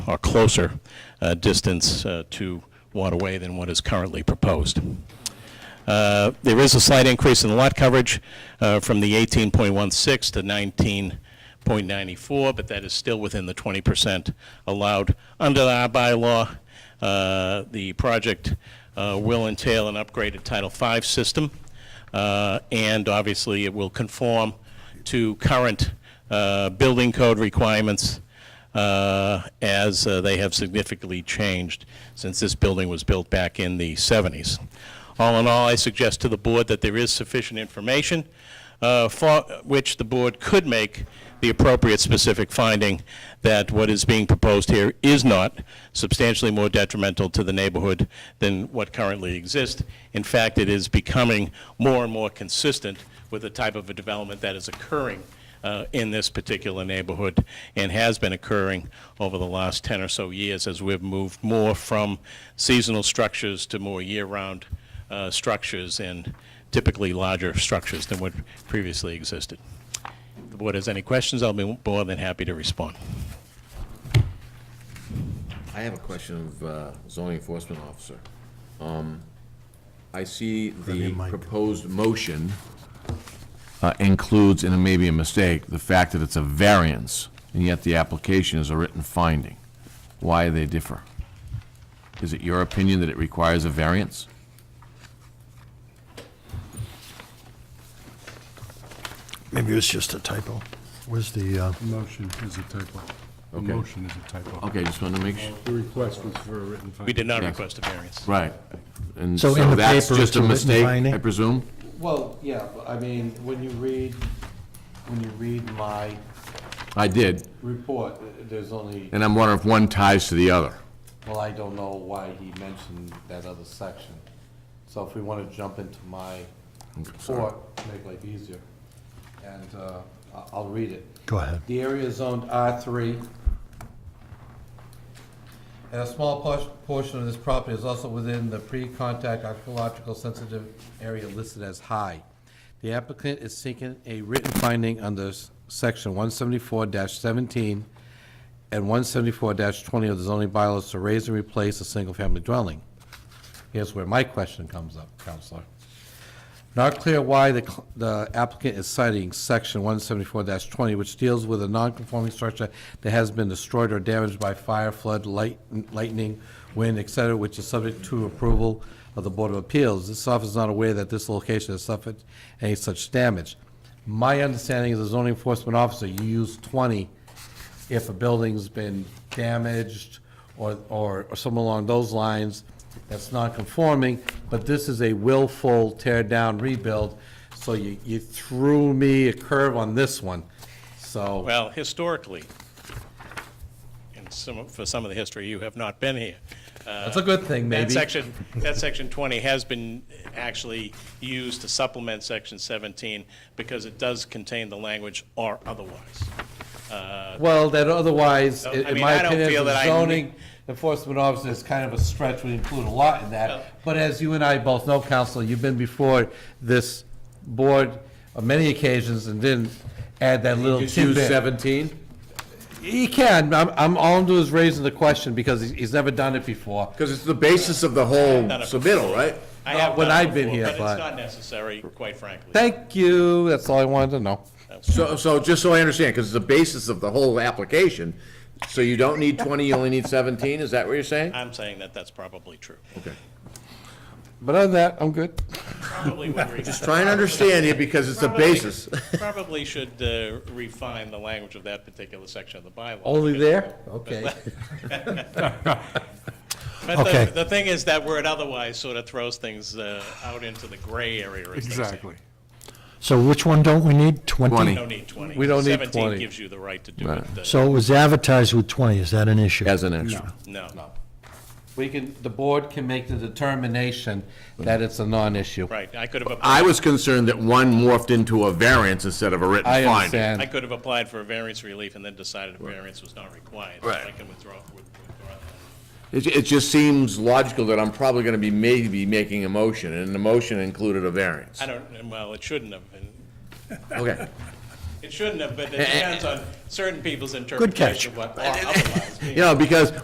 or closer uh, distance uh, to Waterway than what is currently proposed. Uh, There is a slight increase in lot coverage uh, from the 18.16 to 19.94, but that is still within the 20% allowed under our bylaw. Uh, The project uh, will entail an upgraded Title V system, uh, and obviously, it will conform to current uh, building code requirements uh, as uh, they have significantly changed since this building was built back in the 70s. All in all, I suggest to the board that there is sufficient information uh, for which the board could make the appropriate specific finding that what is being proposed here is not substantially more detrimental to the neighborhood than what currently exists. In fact, it is becoming more and more consistent with the type of a development that is occurring uh, in this particular neighborhood and has been occurring over the last 10 or so years as we've moved more from seasonal structures to more year-round uh, structures and typically larger structures than what previously existed. If the board has any questions, I'll be more than happy to respond. I have a question of uh, zoning enforcement officer. Um, I see the proposed motion uh, includes, and it may be a mistake, the fact that it's a variance, and yet the application is a written finding. Why they differ? Is it your opinion that it requires a variance? Maybe it was just a typo. Where's the, uh, Motion is a typo. The Okay. motion is a typo. Okay, just wanted to make sure. The request was for a written finding. We did not Yes. request a variance. Right. And So so in the that's paper, just it's a a written mistake, finding? I presume? Well, yeah, but I mean, when you read, when you read my I did, report, uh, there's only, and I'm wondering if one ties to the other. well, I don't know why he mentioned that other section. So if we want to jump into my report, to make life easier, and uh, I- I'll read it. go ahead. The area is zoned R3. And a small por- portion of this property is also within the pre-contact archaeological sensitive area listed as high. The applicant is seeking a written finding under s- section 174-17 and 174-20 of the zoning bylaws to raise and replace a single-family dwelling. Here's where my question comes up, Counselor. Not clear why the cl- the applicant is citing section 174-20, which deals with a non-conforming structure that has been destroyed or damaged by fire, flood, light- lightning, wind, et cetera, which is subject to approval of the Board of Appeals. This office is not aware that this location has suffered any such damage. My understanding is as a zoning enforcement officer, you use 20 if a building's been damaged or, or, or something along those lines that's non-conforming, but this is a willful tear down rebuild, so you, you threw me a curve on this one, so. Well, historically, and some, for some of the history, you have not been here. That's a good thing, That maybe. section, that section 20 has been actually used to supplement section 17 because it does contain the language "or otherwise." Well, that otherwise, So, in I in mean, my I don't feel opinion, that I as a need- zoning enforcement officer is kind of a stretch, we include a lot in Well- that. But as you and I both know, Counselor, you've been before this board on many occasions and didn't add that little Just use tidbit. 17? He can. I'm, I'm, all I'm doing is raising the question because he's, he's never done it before. Because it's the basis of the whole Done it submittal, right? I Not have when done it I've been before, here, But it's but- not necessary, quite frankly. Thank you. That's all I wanted to know. So, so just so I understand, because it's the basis of the whole application, so you don't need 20, you only need 17, is that what you're saying? I'm saying that that's probably true. Okay. But other than that, I'm good. Probably would re- Trying to understand you because it's the probably- basis. Probably should uh, refine the language of that particular section of the bylaw. Only because- there? Okay. But Okay. the, the thing is, that word otherwise sort of throws things uh, out into the gray area. as they say. Exactly. So which one don't we need? 20? Twenty. No need 20. We don't need 17 20. gives you the right to do Right. it. uh, So it was advertised with 20, is that an issue? As an extra. No, We can, the board can make the determination that it's a non-issue. right, I could have, applied- I was concerned that one morphed into a variance instead of a written I finding. I understand. could have applied for a variance relief and then decided a variance was not required. Right. I can withdraw, withdraw that. It, it just seems logical that I'm probably going to be maybe making a motion, and the motion included a variance. I don't, well, it shouldn't have, been. Okay. It shouldn't have, but it depends on certain people's catch. interpretation of what otherwise means. You know, because